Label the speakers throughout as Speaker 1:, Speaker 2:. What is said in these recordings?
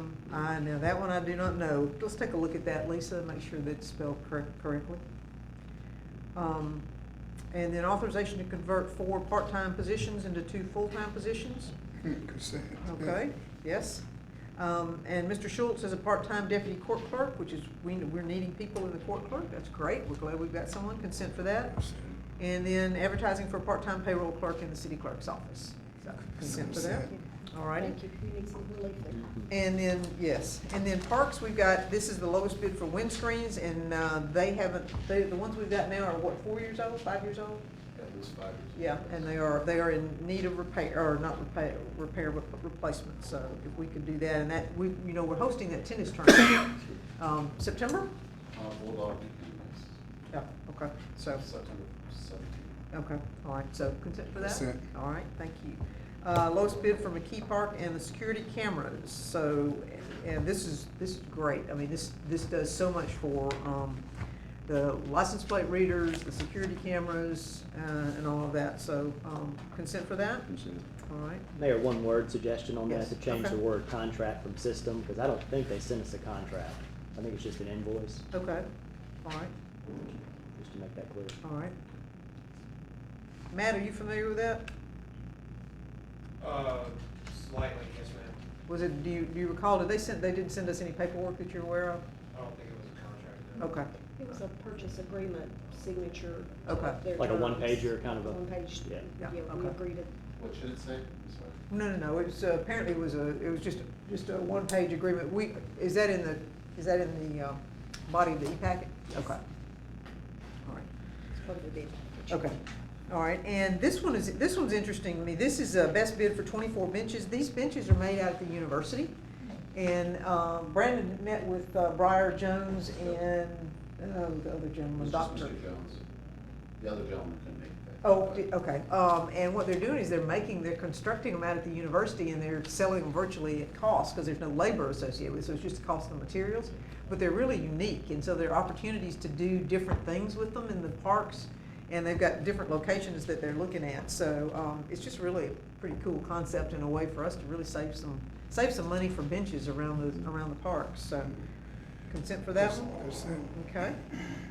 Speaker 1: now that one Um, I do not know. Let's take a look at that, Lisa, and make sure that's spelled cor- correctly. Um, and then authorization to convert four part-time positions into two full-time positions.
Speaker 2: Consent.
Speaker 1: Okay, yes. Um, and Mr. Schultz is a part-time deputy court clerk, which is, we, we're needing people in the court clerk. That's great. We're glad we've got someone. Consent for that. And then advertising for a part-time payroll clerk in the city clerk's office. So consent for that. All righty.
Speaker 3: Thank you, you need some relief there.
Speaker 1: And then, yes, and then parks, we've got, this is the lowest bid for windscreens, and uh, they haven't, they, the ones we've got now are what, four years old, five years old?
Speaker 4: At least five years.
Speaker 1: Yeah, and they are, they are in need of repair, or not repair, repair, but replacement, so if we could do that, and that, we, you know, we're hosting that tennis tournament, um, September?
Speaker 4: Uh, Bulldog Weekend
Speaker 1: Yeah, okay, so. Oh.
Speaker 4: is September seventeenth.
Speaker 1: Okay, all right, so consent for that?
Speaker 2: Consent.
Speaker 1: All right, thank you. Uh, lowest bid for McKee Park and the security cameras, so, and this is, this is great. I mean, this, this does so much for, um, the license plate readers, the security cameras, uh, and all of that, so, um, consent for that? All right,
Speaker 5: Mayor, one word suggestion on
Speaker 1: Yes,
Speaker 5: that, to change
Speaker 1: okay.
Speaker 5: the word contract from system, because I don't think they sent us a contract. I think it's just an invoice,
Speaker 1: okay, all right,
Speaker 5: just to make that clear.
Speaker 1: all right. Matt, are you familiar with that?
Speaker 6: Uh, slightly, yes, ma'am.
Speaker 1: Was it, do you, do you recall, did they send, they didn't send us any paperwork that you're aware of?
Speaker 6: I don't think it was a contract. no.
Speaker 1: Okay,
Speaker 3: It was a purchase agreement signature.
Speaker 1: Okay.
Speaker 3: of their
Speaker 5: Like a
Speaker 3: terms.
Speaker 5: one-pager, kind of a-
Speaker 3: One page,
Speaker 5: Yeah.
Speaker 3: yeah,
Speaker 1: Yeah,
Speaker 3: we
Speaker 1: okay.
Speaker 3: agreed to
Speaker 4: What should it say? I'm sorry.
Speaker 1: No, no, no, it was, uh, apparently it was a, it was just, just a one-page agreement. We, is that in the, is that in the, uh, body of the e-packet? Okay. All right.
Speaker 3: it's part of the bid package.
Speaker 1: Okay, all right, and this one is, this one's interesting to me, this is a best bid for twenty-four benches, these benches are made out at the university. And, um, Brandon met with uh, Briar Jones and, uh, the other
Speaker 4: It
Speaker 1: gentleman,
Speaker 4: was just
Speaker 1: Doctor.
Speaker 4: Mr. Jones. The other gentleman couldn't make it.
Speaker 1: Oh, di- okay, um, and what they're doing is they're making, they're constructing them out at the university and they're selling them virtually at cost, because there's no labor associated with it, so it's just the cost of the materials. But they're really unique, and so there are opportunities to do different things with them in the parks, and they've got different locations that they're looking at, so, um, it's just really a pretty cool concept and a way for us to really save some, save some money for benches around the, around the parks, so. Consent for that one?
Speaker 2: Consent.
Speaker 1: Okay,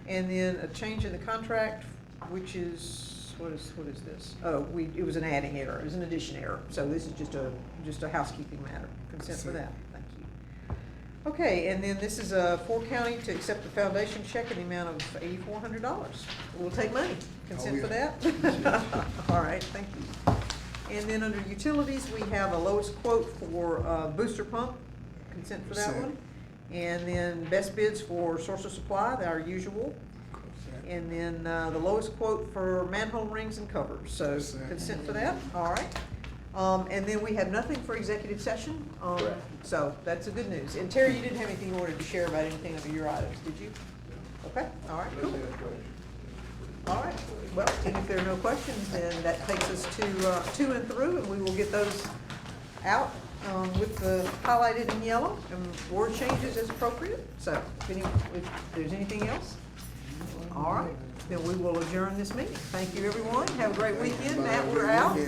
Speaker 1: and then a change in the contract, which is, what is, what is this? Oh, we, it was an adding error, it was an addition error, so this is just a, just a housekeeping matter, consent for that,
Speaker 2: Consent.
Speaker 1: thank you. Okay, and then this is, uh, for county to accept the foundation check in the amount of eighty-four hundred dollars. We'll take money, consent for
Speaker 2: yeah.
Speaker 1: that? All right, thank you. And then under utilities, we have a lowest quote for, uh, booster pump, consent for that
Speaker 2: Consent.
Speaker 1: one. And then best bids for source of supply, our usual.
Speaker 2: Consent.
Speaker 1: And then uh, the lowest quote for manhole rings and covers, so
Speaker 2: Consent.
Speaker 1: consent for that, all right. Um, And then we have nothing for executive session, um,
Speaker 5: Correct.
Speaker 1: so that's the good news. And Terry, you didn't have anything you wanted to share about anything under your items, did you? Okay, all right, cool. All right, well, and if there are no questions, then that takes us to uh, two and through, and we will get those out um, with the highlighted in yellow and word changes as appropriate. So if any, if there's anything else, all right, then we will adjourn this meeting. Thank you, everyone. Have a great weekend. Matt, we're out.